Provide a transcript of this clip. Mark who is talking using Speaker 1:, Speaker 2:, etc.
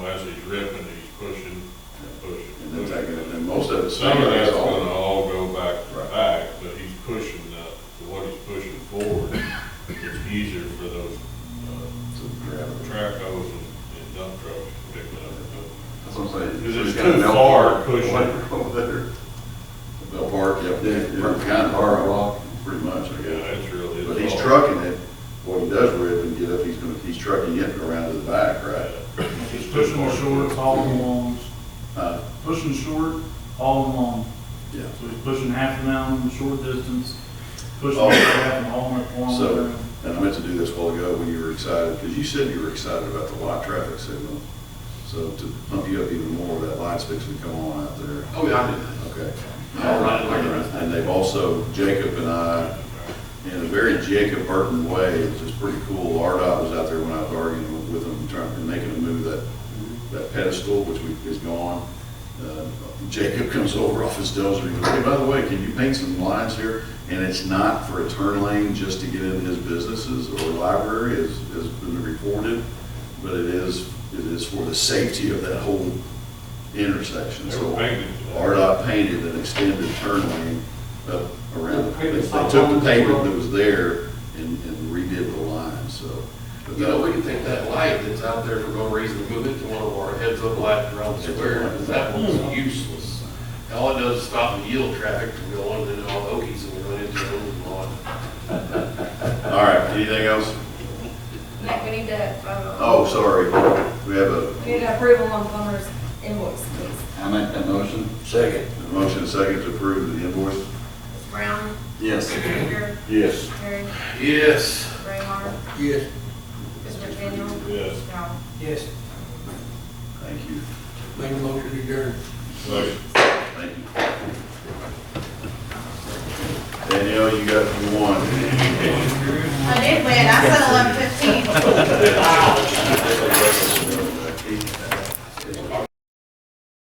Speaker 1: guys, he's ripping, he's pushing,
Speaker 2: and then
Speaker 1: pushing,
Speaker 2: take it, and
Speaker 1: pushing.
Speaker 2: then most of it's.
Speaker 1: Some of that's
Speaker 2: all-
Speaker 1: gonna all go back to
Speaker 2: Right.
Speaker 1: back, but he's pushing, uh, what he's pushing forward. It's easier for those, uh,
Speaker 2: to grab it.
Speaker 1: track hoes and and dump trucks to pick it up.
Speaker 2: That's what I'm saying.
Speaker 1: 'Cause it's
Speaker 2: We've got a
Speaker 1: too
Speaker 2: bell
Speaker 1: far
Speaker 2: park
Speaker 1: pushing.
Speaker 2: over there. A Bell park, yep, we're kind of hard rock, pretty much, I
Speaker 1: Yeah,
Speaker 2: guess.
Speaker 1: it's really. it's
Speaker 2: But he's
Speaker 1: all-
Speaker 2: trucking it, what he does rip and get up, he's gonna, he's trucking it around to the back, right?
Speaker 1: Yeah.
Speaker 3: He's pushing the short, hauling longs,
Speaker 2: Uh,
Speaker 3: pushing short, hauling long.
Speaker 2: yeah.
Speaker 3: So he's pushing half an hour in the short distance, pushing
Speaker 2: Oh.
Speaker 3: half and hauling it long.
Speaker 2: So, and I meant to do this a while ago when you were excited, because you said you were excited about the light traffic signal. So to pump you up even more, that light's fixing to come on out there.
Speaker 4: Oh, yeah, I did.
Speaker 2: Okay.
Speaker 4: All right, all right.
Speaker 2: And they've also, Jacob and I, in a very Jacob Burton way, which is pretty cool, RDOT was out there when I was arguing with them, trying, and making them move that, that pedestal, which we, is gone. Uh, Jacob comes over off his dozer, he goes, hey, by the way, can you paint some lines here? And it's not for a turn lane just to get into his businesses or library, as, has been reported, but it is, it is for the safety of that whole intersection.
Speaker 1: They
Speaker 2: So
Speaker 1: were painted.
Speaker 2: RDOT painted an extended turn lane up around. it.
Speaker 4: Okay,
Speaker 2: They
Speaker 4: it's not
Speaker 2: took the
Speaker 4: long,
Speaker 2: pavement
Speaker 4: it's
Speaker 2: that was there and, and redid the line, so. but
Speaker 4: You know, we
Speaker 2: that-
Speaker 4: can take that light that's out there for no reason, and move it to one of our heads up lights around the square, because that one's useless. All it does is stop and yield traffic from going, and then all the okies, and we run into them and all.
Speaker 2: All right, anything else?
Speaker 5: Nick, we need to, um,
Speaker 2: Oh, sorry, we have a,
Speaker 5: we need to approval on plumber's invoice, please.
Speaker 6: I make that motion?
Speaker 2: a motion and second to approve the invoice?
Speaker 5: Ms. Brown,
Speaker 6: Yes.
Speaker 5: Baker,
Speaker 2: Yes.
Speaker 5: Terry,
Speaker 4: Yes.
Speaker 5: Raymar,
Speaker 6: Yes.
Speaker 5: Mr. McDaniel.
Speaker 1: Yes.
Speaker 5: Powell.
Speaker 7: Yes,
Speaker 2: Thank you,
Speaker 7: make a motion to adjourn.
Speaker 1: Like,
Speaker 2: thank you. Danielle, you got one.
Speaker 8: I did win, I said eleven fifteen.